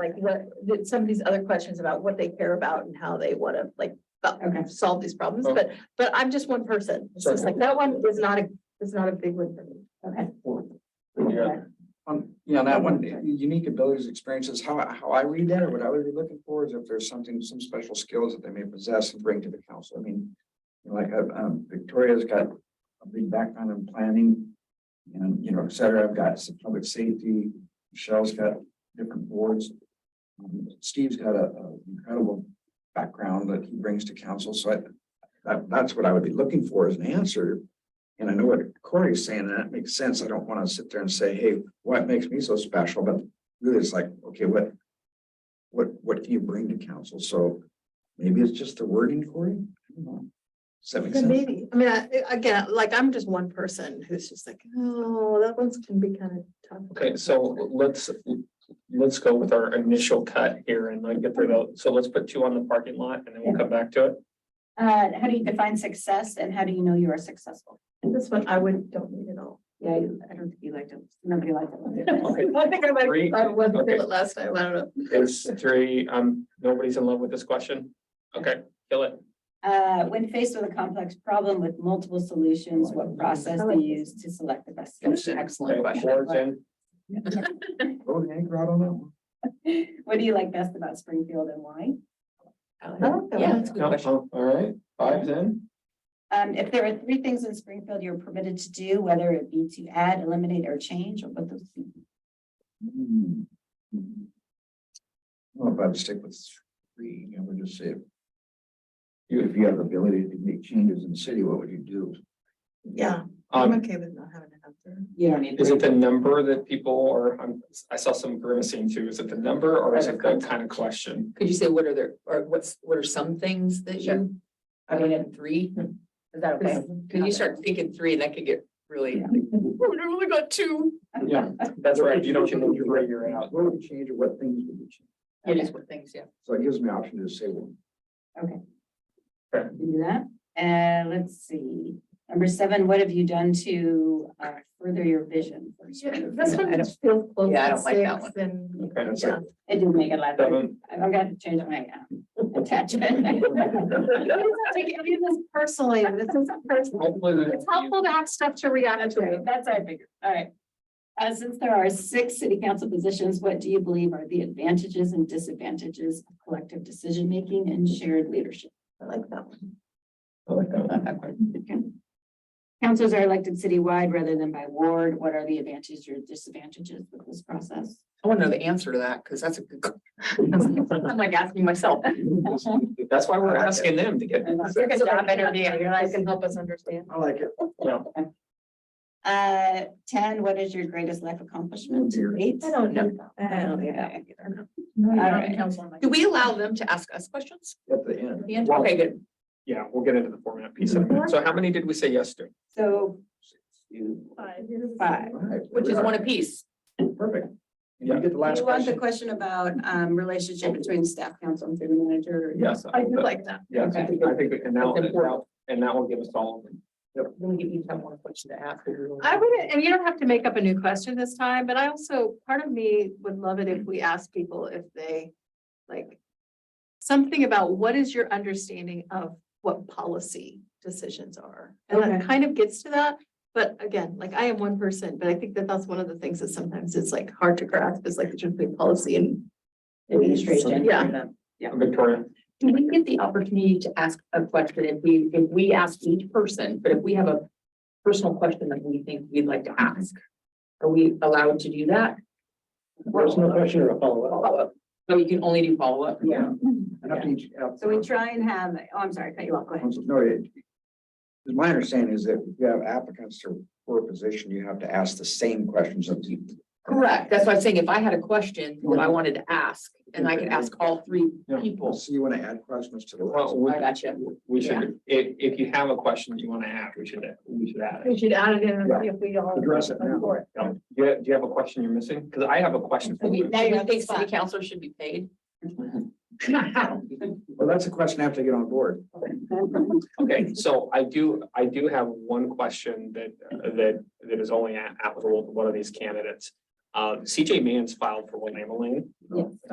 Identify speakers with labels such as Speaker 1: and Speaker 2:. Speaker 1: Like what, that some of these other questions about what they care about and how they want to like about-
Speaker 2: Okay.
Speaker 1: solve these problems,
Speaker 3: Oh.
Speaker 1: but, but I'm just one person. It's just like, that one is not a, is not a big one for me.
Speaker 2: Okay.
Speaker 4: Yeah. Um, you know, that one, unique abilities, experiences, how, I- how I read that or what I would be looking for is if there's something, some special skills that they may possess and bring to the council. I mean, you know, like, uh, um, Victoria's got a big background in planning and, you know, et cetera. I've got some public safety. Michelle's got different boards. Um, Steve's got a, a incredible background that he brings to council. So I, that, that's what I would be looking for as an answer. And I know what Corey's saying, and that makes sense. I don't want to sit there and say, hey, what makes me so special? But really, it's like, okay, what? What, what can you bring to council? So maybe it's just the wording, Corey? I don't know. Does that make
Speaker 1: Then
Speaker 4: sense?
Speaker 1: Maybe, I mean, I- again, like I'm just one person who's just like, oh, that one's can be kind of tough.
Speaker 5: Okay, so let's, let's go with our initial cut here and like get through those. So let's put two on the parking lot and then we'll come back to it.
Speaker 2: Uh, how do you define success and how do you know you are successful?
Speaker 1: This one I would, don't need at all.
Speaker 2: Yeah, you- I don't think you liked it. Nobody liked
Speaker 5: Okay.
Speaker 2: it.
Speaker 1: I think I
Speaker 5: Three,
Speaker 1: might, I was
Speaker 5: okay.
Speaker 1: it last time, I don't know.
Speaker 5: It's three, um, nobody's in love with this question. Okay, kill it.
Speaker 2: Uh, when faced with a complex problem with multiple solutions, what process they use to select the best solution?
Speaker 5: Okay,
Speaker 2: Excellent
Speaker 5: Four's in.
Speaker 4: Go the anchor out on that one.
Speaker 2: What do you like best about Springfield and why?
Speaker 1: Yeah.
Speaker 5: No, oh, All right, five's in.
Speaker 2: Um, if there are three things in Springfield you're permitted to do, whether it be to add, eliminate, or change, or what those.
Speaker 4: Hmm. Well, if I would stick with three, I would just say. You, if you have the ability to make changes in the city, what would you do?
Speaker 1: Yeah, I'm
Speaker 5: Um,
Speaker 1: okay with not having an answer.
Speaker 2: You don't need.
Speaker 5: is it the number that people or I'm, I saw some grimacing too. Is it the number or is it the kind of question?
Speaker 3: Could you say what are there, or what's, what are some things that you? I mean, at three,
Speaker 2: Is that okay?
Speaker 3: because you start thinking three, and that could get really, oh, I only got two.
Speaker 5: Yeah, that's right. You don't, you know, you're right, you're out.
Speaker 4: What would you change or what things would you change?
Speaker 3: It is what things, yeah.
Speaker 4: So it gives me option to say, well,
Speaker 2: We can do that. And let's see, number seven, what have you done to uh, further your vision? for Springfield?
Speaker 1: This
Speaker 3: I
Speaker 1: one
Speaker 3: don't-
Speaker 1: is still close
Speaker 3: yeah, I
Speaker 1: to
Speaker 3: don't like that
Speaker 1: six and,
Speaker 5: Okay,
Speaker 4: that's
Speaker 1: yeah.
Speaker 4: it.
Speaker 2: It didn't make it last.
Speaker 5: seven.
Speaker 2: I'm I'm gonna change my uh, attachment.
Speaker 1: Take any of this personally, this is personal.
Speaker 5: Hopefully that-
Speaker 1: It's helpful to have stuff to react
Speaker 2: That's right,
Speaker 1: to.
Speaker 2: that's our figure, all right. Uh, since there are six city council positions, what do you believe are the advantages and disadvantages of collective decision making and shared leadership?
Speaker 1: I like that one.
Speaker 5: I like that one.
Speaker 2: Not that part. Okay. Councils are elected citywide rather than by ward. What are the advantages or disadvantages with this process?
Speaker 3: I want to know the answer to that, because that's a good. I'm like asking myself.
Speaker 5: That's why we're asking them to get.
Speaker 3: Good job interviewing, you're like,
Speaker 1: can help us understand.
Speaker 4: I like it.
Speaker 5: No,
Speaker 2: Uh, ten, what is your greatest life accomplishment?
Speaker 4: Oh, dear.
Speaker 2: Eight.
Speaker 1: I don't know.
Speaker 2: I don't think
Speaker 1: Yeah.
Speaker 2: I either.
Speaker 1: No, you
Speaker 2: All
Speaker 1: don't
Speaker 2: right.
Speaker 1: count on my-
Speaker 3: Do we allow them to ask us questions?
Speaker 4: At the end,
Speaker 5: Well-
Speaker 3: Okay, good.
Speaker 5: yeah, we'll get into the format piece in a minute. So how many did we say yes to?
Speaker 2: So
Speaker 1: Five.
Speaker 2: five.
Speaker 4: Right,
Speaker 3: Which is one apiece.
Speaker 4: Perfect. And You get the last
Speaker 2: You want the
Speaker 4: question.
Speaker 2: question about um relationship between staff council and city manager?
Speaker 5: Yes.
Speaker 1: I do like that.
Speaker 5: Yes, I think, I think, and that will, and that will give us all.
Speaker 3: Then we each have one question to ask.
Speaker 1: I wouldn't, and you don't have to make up a new question this time, but I also, part of me would love it if we asked people if they, like, something about what is your understanding of what policy decisions are? And that
Speaker 2: Okay.
Speaker 1: kind of gets to that, but again, like, I am one person, but I think that that's one of the things that sometimes it's like hard to grasp is like, the difference between policy and.
Speaker 3: Administration.
Speaker 1: Yeah,
Speaker 5: Victoria,
Speaker 3: Do we get the opportunity to ask a question if we, if we ask each person, but if we have a personal question that we think we'd like to ask? Are we allowed to do that?
Speaker 4: Personal question or a follow-up?
Speaker 3: Follow-up. So you can only do follow-up?
Speaker 4: Yeah. And up to each- up-
Speaker 2: So we try and have, oh, I'm sorry, cut you off, go ahead.
Speaker 4: No, it. My understanding is that if you have applicants to- for a position, you have to ask the same questions of people.
Speaker 3: Correct. That's why I'm saying if I had a question that I wanted to ask, and I could ask all three
Speaker 5: Yeah.
Speaker 3: people.
Speaker 4: So you want to add questions to the
Speaker 5: well,
Speaker 4: list?
Speaker 5: we,
Speaker 3: I gotcha.
Speaker 5: we should, if, if you have a question that you want to ask, we should, we should add it.
Speaker 1: we should add it in if we all.
Speaker 4: Address it now.
Speaker 1: Go for it.
Speaker 5: Um, Do you, do you have a question you're missing? Because I have a question. for
Speaker 3: We,
Speaker 5: you.
Speaker 3: now you think city councilors should be paid?
Speaker 4: Well, that's a question I have to get on board.
Speaker 5: Okay, so I do, I do have one question that, that, that is only applicable to one of these candidates. Uh, CJ Mann's filed for Willamette Lane.